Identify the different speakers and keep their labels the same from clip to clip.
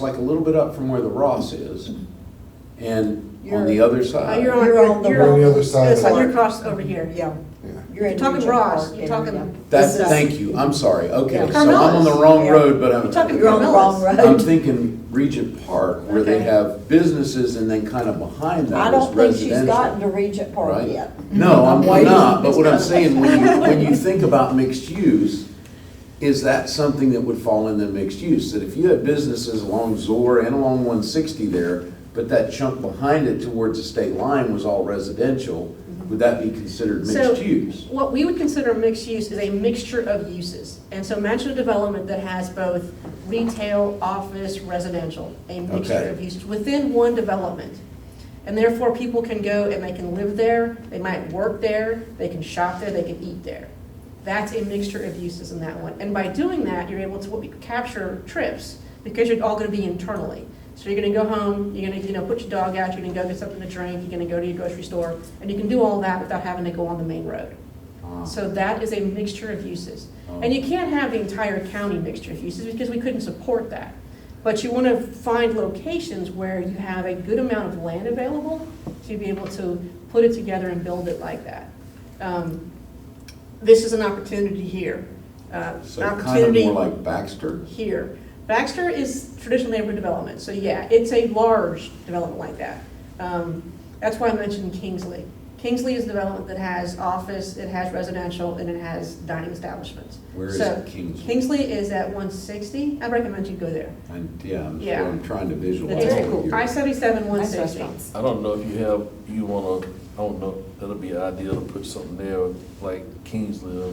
Speaker 1: like a little bit up from where the Ross is, and on
Speaker 2: You're-
Speaker 1: the other
Speaker 2: Uh,
Speaker 1: side.
Speaker 2: You're on,
Speaker 3: You're on the-
Speaker 2: you're
Speaker 4: We're on
Speaker 2: on,
Speaker 4: the other side of
Speaker 3: That's
Speaker 4: it.
Speaker 3: on
Speaker 2: you're
Speaker 3: your-
Speaker 2: across over here.
Speaker 3: Yeah,
Speaker 4: Yeah.
Speaker 3: you're in
Speaker 2: You're talking
Speaker 3: Regent Park
Speaker 2: Ross, you're
Speaker 3: and
Speaker 2: talking-
Speaker 3: everything.
Speaker 1: That,
Speaker 3: This is-
Speaker 1: thank you, I'm sorry, okay,
Speaker 2: Yeah.
Speaker 1: so I'm on the
Speaker 2: Carmella's,
Speaker 1: wrong
Speaker 2: yeah.
Speaker 1: road, but I'm.
Speaker 2: You're talking
Speaker 3: You're on the wrong
Speaker 2: Carmella's.
Speaker 1: I'm
Speaker 3: road.
Speaker 1: thinking Regent Park, where they
Speaker 2: Okay.
Speaker 1: have businesses and then kind of behind
Speaker 3: I
Speaker 1: that is
Speaker 3: don't think she's
Speaker 1: residential.
Speaker 3: gotten to Regent Park
Speaker 1: Right?
Speaker 3: yet.
Speaker 1: No, I'm
Speaker 3: waiting.
Speaker 1: not, but what I'm saying, when you, when you think about mixed use, is that something that would fall in the mixed use? That if you had businesses along Zor and along one sixty there, but that chunk behind it towards the state line was all residential, would that be considered
Speaker 2: Mm-hmm. So,
Speaker 1: mixed use?
Speaker 2: What we would consider mixed use is a mixture of uses. And so matching a development that has both retail, office, residential, a mixture
Speaker 1: Okay.
Speaker 2: of uses within one development. And therefore, people can go and they can live there, they might work there, they can shop there, they can eat there. That's a mixture of uses in that one. And by doing that, you're able to what we capture trips because you're all going to be internally. So you're going to go home, you're going to, you know, put your dog out, you're going to go get something to drink, you're going to go to your grocery store, and you can do all that without having to go on the main road.
Speaker 1: Ah.
Speaker 2: So that is a mixture of uses.
Speaker 1: Oh.
Speaker 2: And you can't have the entire county mixture of uses because we couldn't support that. But you want to find locations where you have a good amount of land available to be able to put it together and build it like that. Um, This is an opportunity here. Uh,
Speaker 1: So kind of
Speaker 2: opportunity
Speaker 1: more like Baxter?
Speaker 2: here. Baxter is traditional neighborhood development, so yeah, it's a large development like that. Um, That's why I mentioned Kingsley. Kingsley is a development that has office, it has residential, and it has dining establishments.
Speaker 1: Where is
Speaker 2: So,
Speaker 1: Kingsley?
Speaker 2: Kingsley is at one sixty, I recommend you go there.
Speaker 1: And, yeah, I'm
Speaker 2: Yeah.
Speaker 1: sure I'm trying to visualize
Speaker 2: It's
Speaker 3: very
Speaker 1: what you're.
Speaker 2: I seventy-seven, one
Speaker 3: Nice
Speaker 2: sixty.
Speaker 3: restaurants.
Speaker 5: I don't know if you have, you wanna, I don't know, that'll be an idea to put something there, like Kingsley or.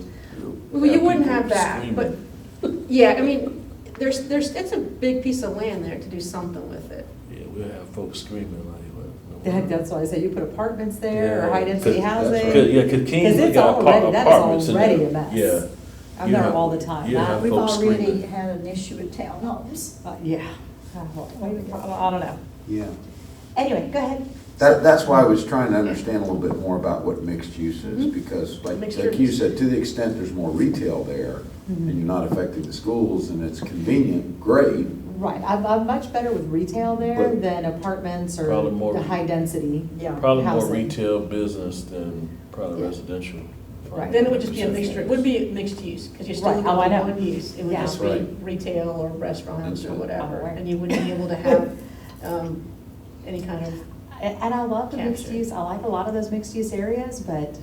Speaker 2: Well, you wouldn't
Speaker 5: people
Speaker 2: have that, but,
Speaker 5: screaming.
Speaker 2: yeah, I mean, there's, there's, it's a big piece of land there to do something with it.
Speaker 5: Yeah, we'll have folks screaming like. like,
Speaker 6: That- That's why I say you put apartments there or
Speaker 5: Yeah.
Speaker 6: high density
Speaker 5: Could-
Speaker 6: housing.
Speaker 5: Cause, yeah, cause Kingsley
Speaker 6: it's
Speaker 5: got apart-
Speaker 6: already- that is
Speaker 5: apartments in there.
Speaker 6: already a mess.
Speaker 5: Yeah.
Speaker 6: I'm
Speaker 5: you
Speaker 6: there
Speaker 5: have-
Speaker 6: all the time.
Speaker 5: you
Speaker 6: I-
Speaker 5: have
Speaker 3: We've
Speaker 5: folks
Speaker 3: already
Speaker 5: screaming.
Speaker 3: had an issue with townhomes. Uh,
Speaker 6: Uh, Yeah. I don't I don't know.
Speaker 1: Yeah.
Speaker 3: Anyway, go ahead.
Speaker 1: That, that's why I was trying to understand a little bit more about what mixed use is, because like,
Speaker 2: Mm-hmm. Mixed
Speaker 1: like you
Speaker 2: use. Mm-hmm.
Speaker 1: said, to the extent there's more retail there, and you're not affecting the schools, and it's convenient, great,
Speaker 6: Right, I'm, I'm much better with retail there
Speaker 1: But-
Speaker 6: than apartments or
Speaker 5: Probably more-
Speaker 6: the high density.
Speaker 3: Yeah.
Speaker 5: Probably more
Speaker 6: Housing.
Speaker 5: retail business than probably residential.
Speaker 6: Right.
Speaker 2: Then it would just be a mixture, it would be mixed use, because you're still
Speaker 6: Right, oh, I
Speaker 2: limited
Speaker 6: know.
Speaker 2: to one use. It would
Speaker 6: Yeah.
Speaker 2: just
Speaker 1: Right.
Speaker 2: be retail or restaurants or
Speaker 1: That's it.
Speaker 2: whatever,
Speaker 6: Aware.
Speaker 2: and you wouldn't be able to have um, any kind of,
Speaker 6: And and I love the mixed
Speaker 2: Captured.
Speaker 6: use, I like a lot of those mixed use areas, but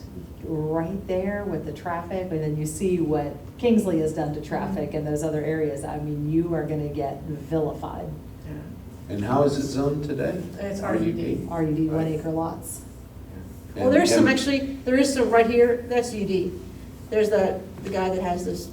Speaker 6: right there with the traffic, and then you see what Kingsley has done to traffic and those other areas, I mean, you are gonna get vilified.
Speaker 1: And how is it zoned today?
Speaker 2: It's RUD.
Speaker 6: RUD one
Speaker 1: Right.
Speaker 6: acre lots.
Speaker 2: well, there's some, actually, there is some right here, that's UD. There's the, the guy that has this,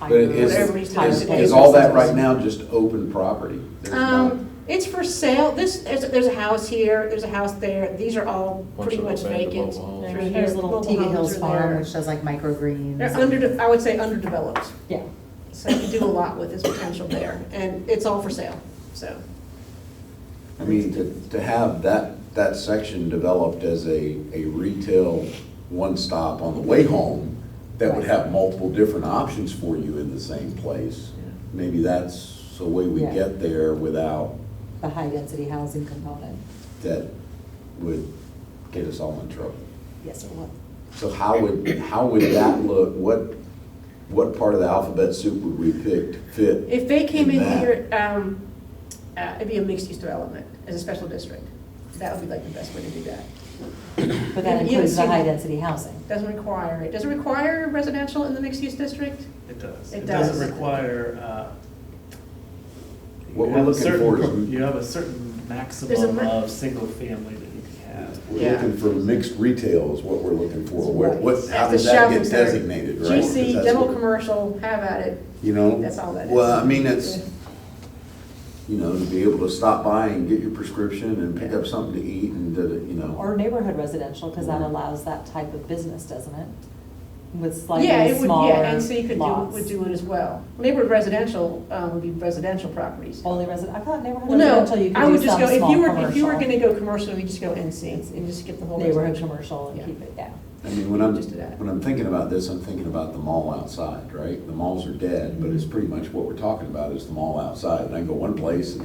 Speaker 1: But is,
Speaker 2: Whatever he's
Speaker 1: is,
Speaker 2: trying to
Speaker 1: is
Speaker 2: say.
Speaker 1: all that right now just open property? There's not-
Speaker 2: um, it's for sale, this, there's, there's a house here, there's a house there, these are all
Speaker 5: Bunch
Speaker 2: pretty
Speaker 5: of
Speaker 2: much
Speaker 5: abandoned
Speaker 2: vacant.
Speaker 5: mobile homes.
Speaker 2: through
Speaker 6: There's
Speaker 2: here.
Speaker 6: there's little
Speaker 2: Mobile
Speaker 6: Tiga
Speaker 2: homes
Speaker 6: Hills
Speaker 2: are
Speaker 6: Farm,
Speaker 2: there.
Speaker 6: which does like microgreens.
Speaker 2: They're under, I would say underdeveloped,
Speaker 6: Yeah.
Speaker 2: so you can do a lot with this potential there, and it's all for sale, so.
Speaker 1: I mean, to, to have that, that section developed as a, a retail one-stop on the way home, that would have multiple different options for you in the same place, maybe that's the way we
Speaker 6: Yeah.
Speaker 1: get there without,
Speaker 6: The high density housing component.
Speaker 1: that would get us all in trouble.
Speaker 6: Yes, or what?
Speaker 1: So how would, how would that look, what, what part of the alphabet soup would we pick to fit?
Speaker 2: If they came in
Speaker 1: that?
Speaker 2: here, um, uh, it'd be a mixed-use development as a special district. That would be like the best way to do that.
Speaker 6: But that
Speaker 2: You- you
Speaker 6: includes the
Speaker 2: see-
Speaker 6: high density housing.
Speaker 2: Doesn't require, it doesn't require residential in the mixed-use district?
Speaker 7: It does.
Speaker 2: It
Speaker 7: It
Speaker 2: does.
Speaker 7: doesn't require, uh. you
Speaker 1: What we're
Speaker 7: have a
Speaker 1: looking
Speaker 7: certain
Speaker 1: for is-
Speaker 7: pro- You have a certain maximum
Speaker 2: ma-
Speaker 7: of single family that you can have.
Speaker 1: We're looking for mixed retail is what we're looking for, where, what, how does
Speaker 2: That's a
Speaker 1: that
Speaker 2: shopping
Speaker 1: get
Speaker 2: center.
Speaker 1: designated, right? 'Cause
Speaker 2: GC,
Speaker 1: that's
Speaker 2: demo
Speaker 1: what-
Speaker 2: commercial, have at it.
Speaker 1: You know?
Speaker 2: That's all that is.
Speaker 1: Well, I mean, it's, you know, to be able to stop by and get your prescription and pick up something to eat and, da- da- you know.
Speaker 6: Or neighborhood residential, because that
Speaker 1: Or-
Speaker 6: allows that type of business, doesn't it? With
Speaker 2: Yeah,
Speaker 6: slightly
Speaker 2: it would.
Speaker 6: smaller
Speaker 2: Yeah, and so you could do, would
Speaker 6: lots.
Speaker 2: do it as well. Neighborhood residential, um, would be residential properties.
Speaker 6: Only resident, I thought neighborhood
Speaker 2: Well, no,
Speaker 6: residential, you
Speaker 2: I
Speaker 6: could
Speaker 2: would
Speaker 6: do
Speaker 2: just
Speaker 6: some
Speaker 2: go, if
Speaker 6: small
Speaker 2: you were, if you were gonna
Speaker 6: commercial.
Speaker 2: go commercial, you just go NC and just skip the whole
Speaker 6: Neighborhood
Speaker 2: residential.
Speaker 6: commercial
Speaker 2: Yeah.
Speaker 6: and keep it down.
Speaker 1: I mean, when I'm,
Speaker 2: Just do that.
Speaker 1: when I'm thinking about this, I'm thinking about the mall outside, right? The malls are dead, but it's pretty much what we're talking about is the mall outside. And I go one place and